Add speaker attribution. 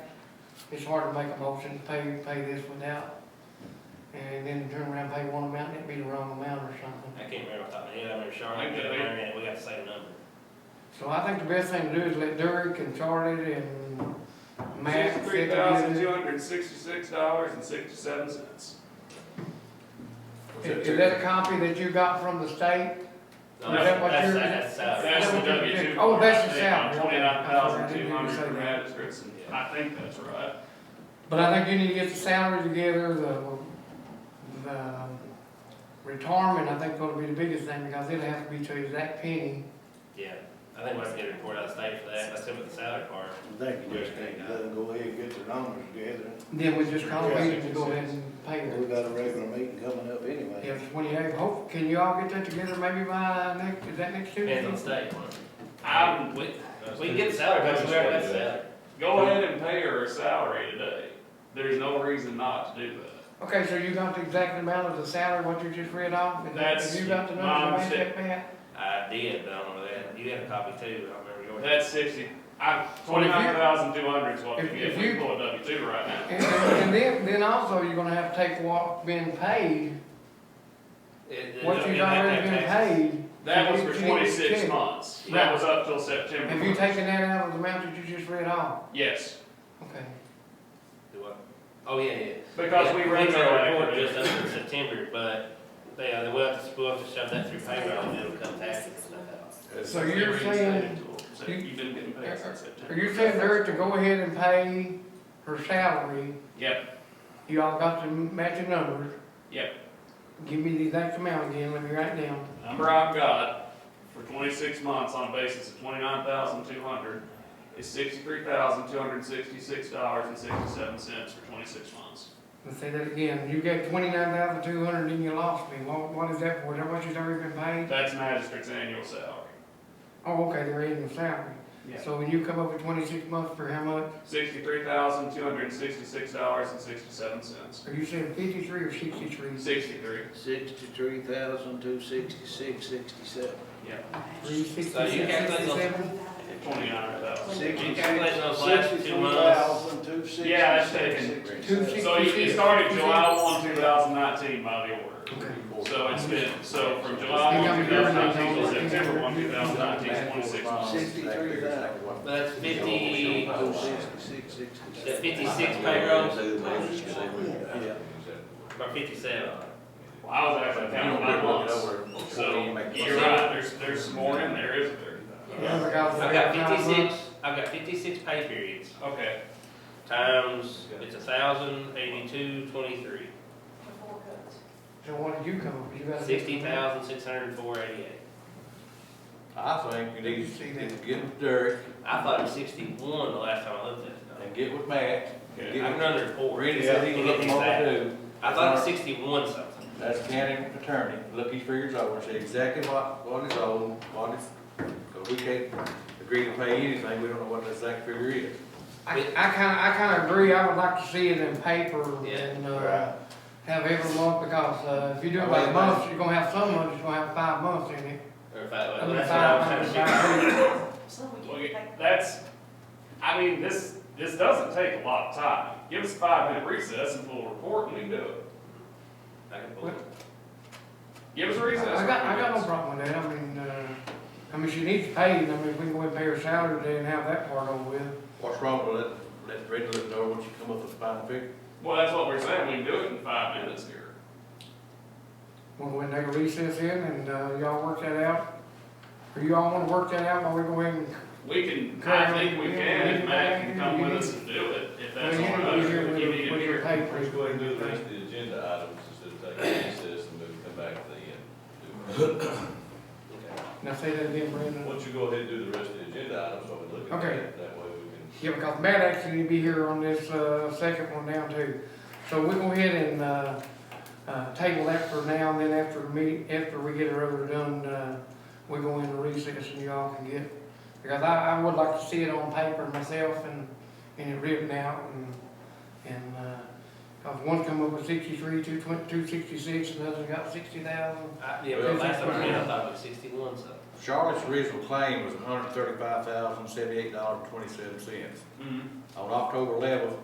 Speaker 1: it's hard to make a motion to pay, pay this without, and then turn around and pay one amount, and it'd be the wrong amount or something.
Speaker 2: I can't remember off the top of my head, I remember Charlotte,
Speaker 3: I
Speaker 2: and
Speaker 3: think they-
Speaker 2: Marion, we got the same number.
Speaker 1: So I think the best thing to do is let Derek and Charlie and Matt. sit
Speaker 3: Sixty-three thousand, two
Speaker 1: together.
Speaker 3: hundred and sixty-six dollars and sixty-seven cents.
Speaker 1: Is is that a copy that you got from the state?
Speaker 2: No,
Speaker 1: Is that what
Speaker 2: that's-
Speaker 1: you're-
Speaker 2: That's, uh, that's,
Speaker 3: That's
Speaker 2: that's,
Speaker 3: the W two.
Speaker 1: Oh, that's the salary, okay.
Speaker 3: Twenty-nine thousand, two hundred
Speaker 1: I
Speaker 3: for
Speaker 1: didn't say
Speaker 3: magistrates, and I think that's right.
Speaker 1: But I think you need to get the salary together, the, the retirement, I think gonna be the biggest thing, because it'll have to be to exact penny.
Speaker 2: yeah, I think we have to get a report out of state for that, let's see what the salary part.
Speaker 4: They can just take, let them go ahead and get their numbers together.
Speaker 1: Then we just call it and go ahead and pay
Speaker 4: We
Speaker 1: it.
Speaker 4: got a regular meeting coming up anyway.
Speaker 1: If twenty-eight, hope, can you all get that together maybe by uh, next, is that next Tuesday?
Speaker 2: Depends on the state, one.
Speaker 3: I'm-
Speaker 2: we, we can get the salary, but uh, we already got the salary.
Speaker 3: Go ahead and pay her her salary today. There's no reason not to do that.
Speaker 1: Okay, so you got the exact amount of the salary, what you just read off? and
Speaker 3: That's
Speaker 1: You got the
Speaker 3: my
Speaker 1: numbers, you
Speaker 3: mistake.
Speaker 1: that back?
Speaker 2: I did, but I don't know that, you had a copy too, I don't remember yours.
Speaker 3: That's sixty, I, twenty-nine thousand, two hundred is what we
Speaker 1: If-
Speaker 3: get
Speaker 1: if
Speaker 3: for
Speaker 1: you-
Speaker 3: a W two right now.
Speaker 1: And, and then, then also, you're gonna have to take what been paid,
Speaker 2: It- it
Speaker 1: what
Speaker 2: don't
Speaker 1: you've
Speaker 2: get that
Speaker 1: already been
Speaker 2: taxes.
Speaker 1: paid.
Speaker 3: That was
Speaker 1: You
Speaker 3: for
Speaker 1: can't
Speaker 3: twenty-six
Speaker 1: check.
Speaker 3: months. That was up till
Speaker 1: Have you
Speaker 3: September.
Speaker 1: taken that out of the amount that you just read off?
Speaker 3: Yes,
Speaker 1: Okay.
Speaker 2: Do what? Oh, yeah, yeah.
Speaker 3: because we
Speaker 2: Yeah,
Speaker 3: ran
Speaker 2: did our report
Speaker 3: retroactive.
Speaker 2: Just up in September, but they, uh, we'll have to, we'll have to shove that through payroll and it'll come tax and stuff out.
Speaker 1: So you're saying-
Speaker 3: So You've been getting paid since
Speaker 1: Are
Speaker 3: September.
Speaker 1: you saying Derek to go ahead and pay her salary?
Speaker 3: Yep,
Speaker 1: You all got the matching numbers.
Speaker 3: yep.
Speaker 1: Give me the exact amount again, let me write it down.
Speaker 3: Number I've got for twenty-six months on a basis of twenty-nine thousand, two hundred is sixty-three thousand, two hundred and sixty-six dollars and sixty-seven cents for twenty-six months.
Speaker 1: Let's say that again. You got twenty-nine thousand two hundred and you lost me. What, what is that for? Is that what you've already been paid?
Speaker 3: That's magistrate's annual salary.
Speaker 1: Oh, okay, they're in the salary. So when you come up with twenty-six months for how much?
Speaker 3: Sixty-three thousand, two hundred and sixty-six dollars and sixty-seven cents.
Speaker 1: Are you saying fifty-three or sixty-three?
Speaker 3: Sixty-three,
Speaker 4: Sixty-three thousand, two sixty-six, sixty-seven.
Speaker 3: yeah,
Speaker 1: Three
Speaker 2: So you
Speaker 1: sixty-six,
Speaker 2: calculate those-
Speaker 1: sixty-seven?
Speaker 3: twenty-nine thousand.
Speaker 2: You
Speaker 4: Sixty-three
Speaker 2: calculate those Oh, last two months,
Speaker 4: thousand, two sixty-six.
Speaker 3: Yeah, that's taken.
Speaker 1: Two sixty-six.
Speaker 3: So you you started July one, two thousand nineteen by the order.
Speaker 1: Okay.
Speaker 3: So it's been, so from July one, two thousand nineteen to September one, two thousand nineteen, is twenty-six months.
Speaker 4: Sixty-three thousand,
Speaker 2: but that's fifty,
Speaker 4: two sixty-six, sixty-seven.
Speaker 2: that fifty-six payroll,
Speaker 4: Yeah.
Speaker 2: or fifty-seven.
Speaker 3: Well, I was actually counting by months. So you're right, there's, there's some more in there, isn't there?
Speaker 1: Yeah, I got-
Speaker 2: I've got fifty-six, I've got fifty-six pay periods,
Speaker 3: Okay,
Speaker 2: times, it's a thousand eighty-two twenty-three,
Speaker 1: So what did you come up with? You got a-
Speaker 2: sixty thousand six hundred and four eighty-eight.
Speaker 5: I think you need to get with Derek
Speaker 2: I thought it was sixty-one the last time I looked at it.
Speaker 5: and get with Matt.
Speaker 3: okay.
Speaker 5: Yeah.
Speaker 2: I'm under four.
Speaker 5: Randy said he can look them over too.
Speaker 2: I thought it was sixty-one something.
Speaker 5: That's county attorney, look his figures over, see exactly what, what is owed, what is, because we can't agree to pay anything, we don't know what the exact figure is.
Speaker 1: I, I kinda, I kinda agree, I would like to see it in paper and, uh, have every month, because, uh, if you do it by
Speaker 5: Right.
Speaker 1: months, you're gonna have some months, you're gonna have five months in it.
Speaker 2: Or if I,
Speaker 1: I mean,
Speaker 2: that's what I
Speaker 1: five,
Speaker 2: was
Speaker 1: five,
Speaker 2: trying to figure.
Speaker 1: five.
Speaker 3: Well, That's, I mean, this, this doesn't take a lot of time. Give us a five minute recess and we'll report and we can do it.
Speaker 2: I can pull it.
Speaker 3: Give us a recess.
Speaker 1: I got, I got no problem with that, I mean, uh, I mean, she needs paid, I mean, if we can go and pay her salary today and have that part over with.
Speaker 5: What's wrong with it? Let Randy look it over, once you come up with a final figure.
Speaker 3: Well, that's what we're saying, we can do it in five minutes here.
Speaker 1: We'll go and take a recess in and, uh, y'all work that out. Or you all wanna work that out while we go ahead and,
Speaker 3: We can, I think we can, if Matt can come with us and do it, if
Speaker 1: I
Speaker 3: that's
Speaker 1: mean,
Speaker 3: all
Speaker 1: you
Speaker 3: right.
Speaker 1: need to be here
Speaker 3: If you
Speaker 1: with
Speaker 3: need
Speaker 1: your,
Speaker 3: to
Speaker 1: with your
Speaker 3: hear.
Speaker 1: paper.
Speaker 6: Let's go ahead and do the rest of the agenda items instead of taking recess and move, come back to the end.
Speaker 1: Now say that again, Brandon.
Speaker 6: Once you go ahead and do the rest of the agenda items, I'll be looking at
Speaker 1: Okay.
Speaker 6: it, that way we can.
Speaker 1: Yeah, because Matt actually need to be here on this, uh, second one down too. So we go ahead and, uh, uh, table that for now, and then after the meet, after we get her over done, uh, we go into recess and y'all can get. Because I, I would like to see it on paper myself and, and it written out and, and, uh, cause one come up with sixty-three, two twen- two sixty-six, another got sixty thousand.
Speaker 2: I- Yeah, but last time I ran, I thought it was sixty-one something.
Speaker 5: Charlotte's original claim was hundred thirty-five thousand, seventy-eight dollars, twenty-seven cents.
Speaker 3: Mhm.
Speaker 5: On October eleventh,